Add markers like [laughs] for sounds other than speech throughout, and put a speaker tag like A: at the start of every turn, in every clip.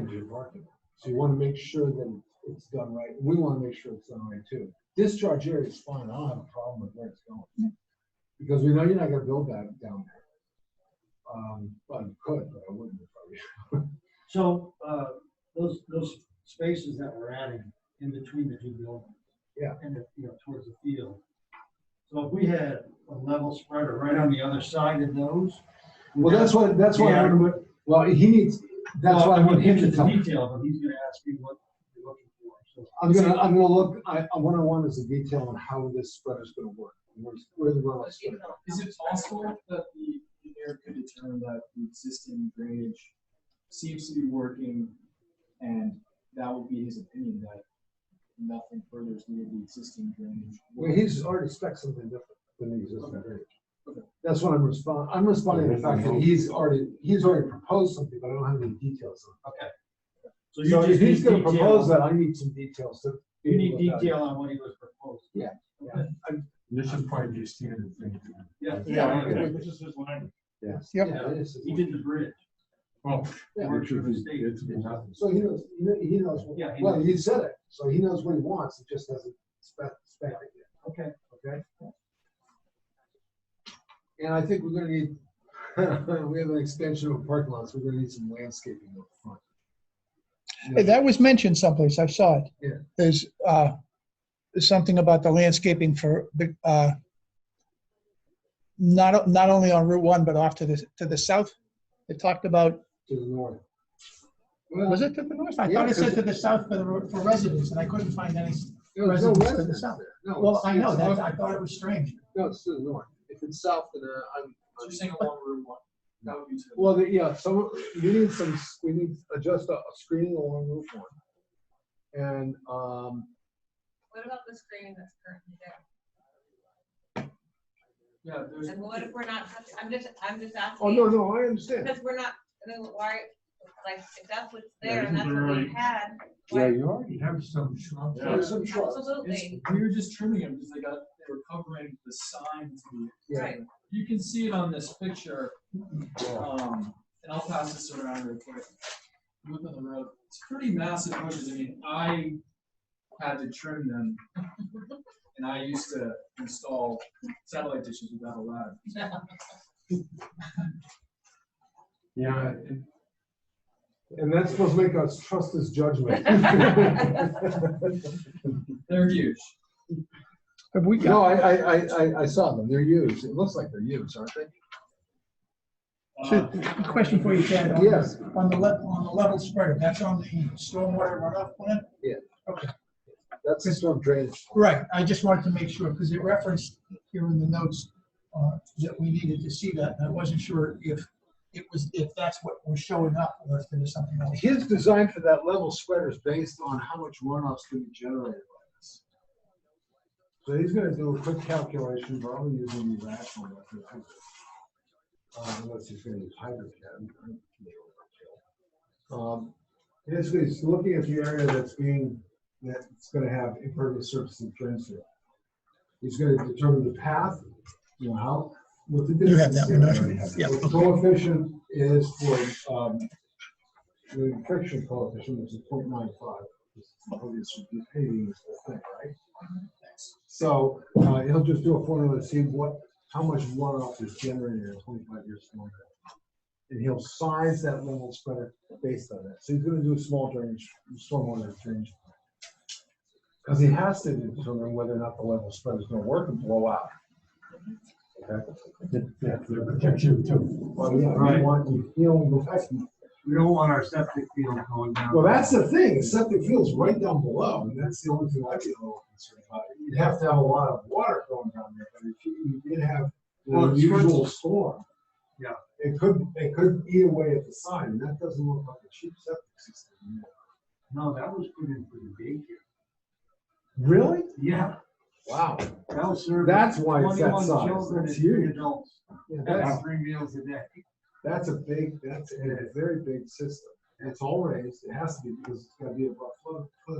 A: secondary market. So you want to make sure that it's done right. We want to make sure it's done right too. Discharge area is fine. I don't have a problem with where it's going. Because we know you're not gonna build that down there. Um, but you could, but I wouldn't. if I were you.
B: So, uh, those, those spaces that we're adding in between the two buildings.
A: Yeah.
B: And, the, you know, towards the field. So if we had a level spreader right on the other side of those. we'd
A: Well, that's
B: have-
A: what, that's why,
B: Yeah.
A: I'm- well, he needs, that's
B: Well,
A: why I want him to
B: into
A: tell me.
B: Detail, but he's gonna ask me what you're looking for, so.
A: I'm gonna, I'm gonna look, I, I- what I want is a detail on how this spreader is gonna work. Where's- Where the road is gonna go.
C: Is it possible that the engineer could determine that the existing drainage seems to be working? And that would be his opinion that nothing further is needed, the existing drainage.
A: Well, he's already spec something different than the existing
C: Okay.
A: drainage. That's what I'm responding, I'm responding to the fact that he's already, he's already proposed something, but I don't have any details on
B: So
A: it.
B: you
A: So if
B: just
A: he's
B: need
A: gonna propose that,
B: detail,
A: I need some details to.
B: you need detail on what he was proposing.
A: Yeah.
B: Okay.
D: This is probably the standard thing.
B: Yeah.
A: Yeah,
B: Yeah.
A: okay.
D: This is his language.
A: Yes.
E: Yep.
A: Yeah, it is.
B: He did the bridge.
D: Well.
A: Yeah.
D: which is- it's-
A: So he knows, he kn- he knows, what-
B: Yeah, he
A: well,
B: knows.
A: he said it, so he knows what he wants, he just hasn't spec, spec it yet.
B: Okay.
A: okay? And I think we're gonna need, [laughs] we have an extension of a parking lots, we're gonna need some landscaping up front.
E: Hey, That was mentioned someplace, I saw it.
A: Yeah.
E: There's, uh, there's something about the landscaping for, the, uh, not, not only on Route One, but off to the, to the south. It talked about,
A: To the north.
E: was it to the north? I
A: Yeah,
E: thought it said
A: 'cause-
E: to the south for, the ro- for residents, and I couldn't find any.
A: There's no
E: Residents to the
A: residence
E: south.
A: there. No,
E: Well,
A: it's-
E: I know,
A: it's
E: that,
A: up-
E: I thought it was strange.
A: No, it's to the north. If it's south, then uh, I'm.
C: So you're saying along Route one, that would be. to the-
A: Well, the- yeah, so you need some, we need adjust a a screening along Route One. And, um,
F: What about the screening that's currently there?
C: Yeah, there's.
F: And what if we're not, touching- I'm just, I'm just
A: oh, no,
F: asking,
A: no, I understand.
F: because we're not, I mean, why, like, if that's what's
D: Yeah,
F: there and
D: this
F: that's
D: is
F: what we
D: really-
F: had,
D: Yeah,
F: why,
D: you already have some shrubs.
A: There's some shrubs.
F: absolutely.
C: It's- We were just trimming them because they got, they were covering the sign. to the-
A: Yeah.
F: Right.
C: You can see it on this picture,
A: Yeah.
C: um, and I'll pass this around real quick. Look on the road, it's pretty massive bushes, I mean, I had to trim them. [laughs] And I used to install satellite dishes without a ladder.
D: Yeah, it-
A: And that's supposed to make us trust his judgment. [laughs]
F: [laughs]
C: They're huge.
E: Have we got,
A: No, I, I, I- I, I saw them. They're used. It looks like they're used, aren't they?
C: Um,
E: so, a question for you, Chad. on-
A: Yes.
E: On the le, on the level spreader, that's on the stormwater runoff plan?
A: That's the storm drainage.
E: Right, I just wanted to make sure, because it referenced here in the notes uh, that we needed to see that, and I wasn't sure if it was, if that's what we're showing up, or if there was something else.
A: His design for that level spreader is based on how much runoff's gonna be generated by this. So he's gonna do a quick calculation, probably using the rational method. Uh, Unless he's gonna use hydrogen. Um, Basically, he's looking at the area that's being, that's gonna have impervious surface and drains through. it. He's gonna determine the path, you know, how, what the
E: You have
A: distance.
E: that
A: is.
E: one, don't you? Yeah,
A: What the Coefficient is for, um, the friction coefficient, which is 0.95. which is obvious from the paving is the thing, right? So, uh, he'll just do a formula to see what, how much runoff is generated in twenty-five years from now. And he'll size that level spreader based on that. So he's gonna do a small drainage, stormwater drainage. Cause he has to determine whether or not the level spreader is gonna work and blow out. Okay?
D: that's the protection too.
A: But we don't want the field effect.
B: We don't want our septic field going down.
A: Well, that's the thing, the septic field's right down below, and that's the only thing I'd be a little concerned about. You'd have to have a lot of water going down there, but if you, you did have
B: Well,
A: an
B: it's good-
A: unusual storm.
B: Yeah.
A: It could, it could eat away at the side, and that doesn't look like a cheap septic system.
B: No, that was put in for the daycare.
A: Really?
B: Yeah.
A: Wow.
B: That'll serve.
A: That's why it's that
B: 21
A: size.
B: children
A: That's
B: and two
A: huge.
B: Adults,
A: Yeah,
B: that's
A: that's,
B: three meals a day.
A: that's a big, that's a very big system. And it's all raised, it has to be, because it's gotta be above flood, flood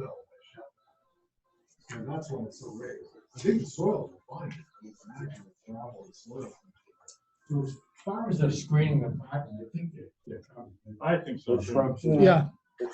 A: elevation. And that's why it's so raised. I think the soil is fine. It's natural gravel and soil.
D: As far as the screening of property, I think that. I think
E: Yeah,